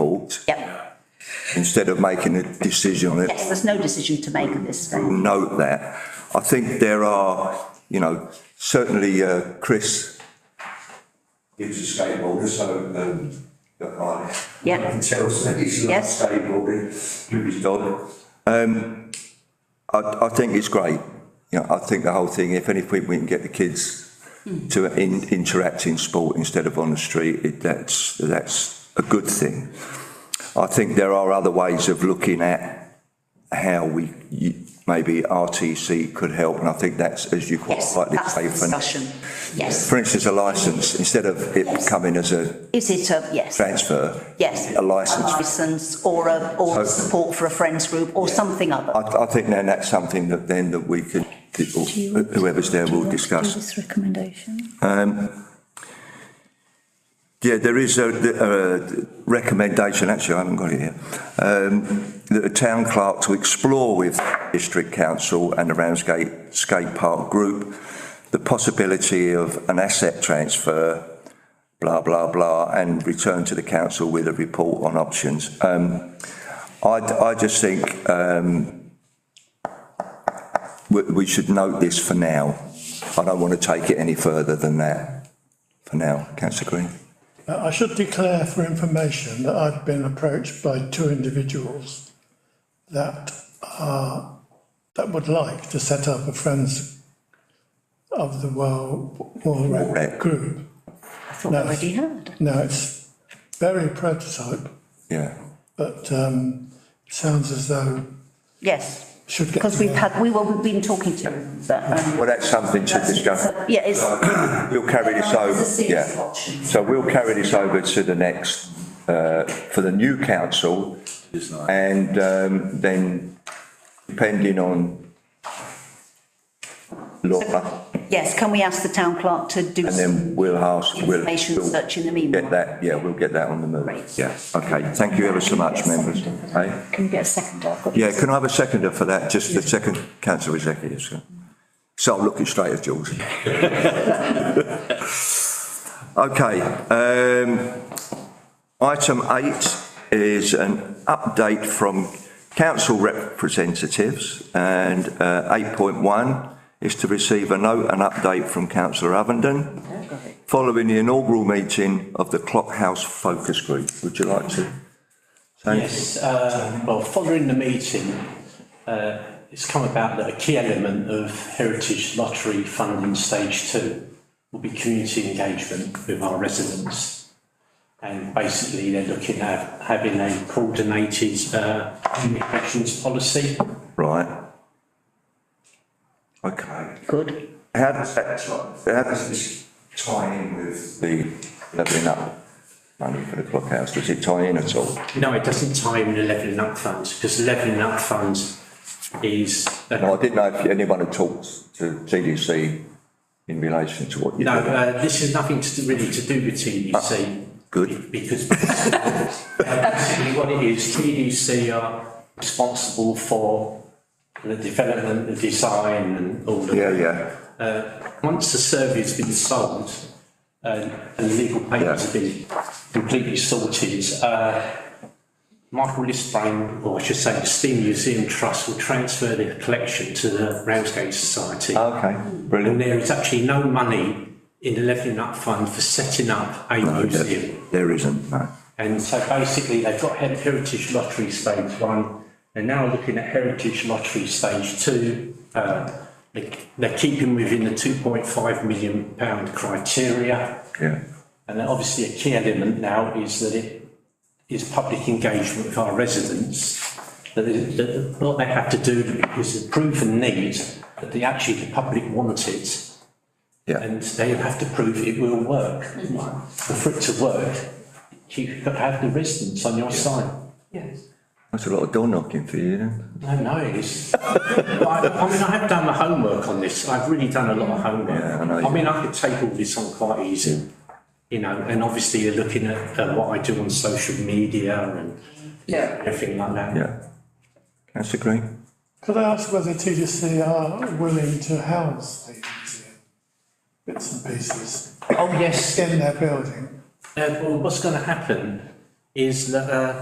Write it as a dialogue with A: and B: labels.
A: report.
B: Yep,
A: Instead of making a decision on it,
B: yes, there's no decision to make at this stage.
A: we'll note that. I think there are, you know, certainly, uh, Chris. Gives a skateboarder, so, um, I
B: Yep.
A: I can tell that he's a
B: Yes.
A: skateboarder, with his dog. Um, I, I think it's great. You know, I think the whole thing, if anything, we can get the kids to in, interact in sport instead of on the street, it, that's, that's a good thing. I think there are other ways of looking at how we, you, maybe RTC could help, and I think that's, as you quite
B: Yes,
A: rightly
B: that's the
A: say, for-
B: discussion. Yes,
A: for instance, a license, instead of it coming as a
B: is it a, yes,
A: transfer,
B: yes.
A: a license.
B: Licence or a, or
A: So-
B: support for a friends group or something
A: I,
B: other.
A: I think then that's something that then that we could, that
C: Do you want-
A: whoever's there
C: do you
A: will
C: want to do
A: discuss.
C: This recommendation.
A: Yeah, there is a, a recommendation, actually, I haven't got it here, um, that the town clerk to explore with District Council and the Ramsgate Skate Park Group the possibility of an asset transfer, blah, blah, blah, and return to the council with a report on options. Um, I, I just think, um, we, we should note this for now. I don't want to take it any further than that, for now, councillor Green.
D: Uh, I should declare for information that I've been approached by two individuals that are, that would like to set up a Friends of the World War
A: Rec.
D: Rec group.
B: I thought we already had.
D: Now, it's very prototype,
A: Yeah.
D: but, um, it sounds as though
B: Yes,
D: it should get.
B: because we've had, we were, we've been talking to them, but, um,
A: Well, that's something to discuss.
B: yeah, it's.
A: We'll carry this
B: It's
A: over,
B: a serious
A: yeah.
B: option.
A: So we'll carry this over to the next, uh, for the new council. And, um, then depending on Laura,
B: Yes, can we ask the town clerk to do
A: and
B: some
A: then we'll ask, we'll,
B: information
A: we'll
B: search in the
A: get
B: meanwhile?
A: that, yeah, we'll get that on the move.
B: Great.
A: Yeah, okay, thank you ever so much, members. Eh?
C: Can you get a second? I've got-
A: Yeah, can I have a seconder for that, just the second council executive, so. So I'm looking straight at George. Okay, um, item eight is an update from council representatives and, uh, eight point one is to receive a note and update from councillor Ovenden following the inaugural meeting of the Clockhouse Focus Group. Would you like to? say?
E: Yes, uh, well, following the meeting, uh, it's come about that a key element of Heritage Lottery funding stage two will be community engagement with our residents. And basically, they're looking at having a coordinated uh, communications policy.
A: Right. Okay.
B: Good.
A: How does that, ti- how does this tie in with the levelling up money for the clockhouse? Does it tie in at all?
E: No, it doesn't tie in with the Levelling Up Fund, because the Levelling Up Fund is.
A: No, I didn't know if anyone had talked to TDC in relation to what you
E: No,
A: do.
E: uh, this is nothing to, do- really to do with TDC.
A: good.
E: Because basically what it is, TDC are responsible for the development, the design and all of
A: Yeah,
E: that.
A: yeah,
E: Uh, once the survey's been sold and, and the legal papers have been completely sorted, uh, Michael Lisbane, or I should say the Steam Museum Trust, will transfer their collection to the Ramsgate
A: Oh,
E: Society.
A: okay,
E: And
A: brilliant.
E: there is actually no money in the Levelling Up Fund for setting up a
A: No,
E: museum.
A: there- There isn't, no.
E: And so basically, they've got Her- Heritage Lottery Stage One, they're now looking at Heritage Lottery Stage Two. Uh, they- They're keeping within the two point five million pound criteria.
A: Yeah,
E: And then obviously, a key element now is that it is public engagement with our residents. That, is- that what they have to do is prove a need that they actually, the public want it.
A: yeah, Mm-hmm.
E: And they have to prove it will work. And for it to work, you've got to have the residents on your side.
A: that's a lot of door knocking for you, then.
E: No, no, it's, I, I mean, I have done the homework on this, I've really done a lot of homework.
A: Yeah, I know you-
E: I mean, I could take all this on quite easy, you know, and obviously you're looking at, at what I do on social media and everything like that.
A: yeah. Councillor Green?
D: Could I ask whether TDC are willing to house the museum bits and pieces
E: Oh, yes,
D: in their building?
E: Uh, well, what's going to happen is that uh,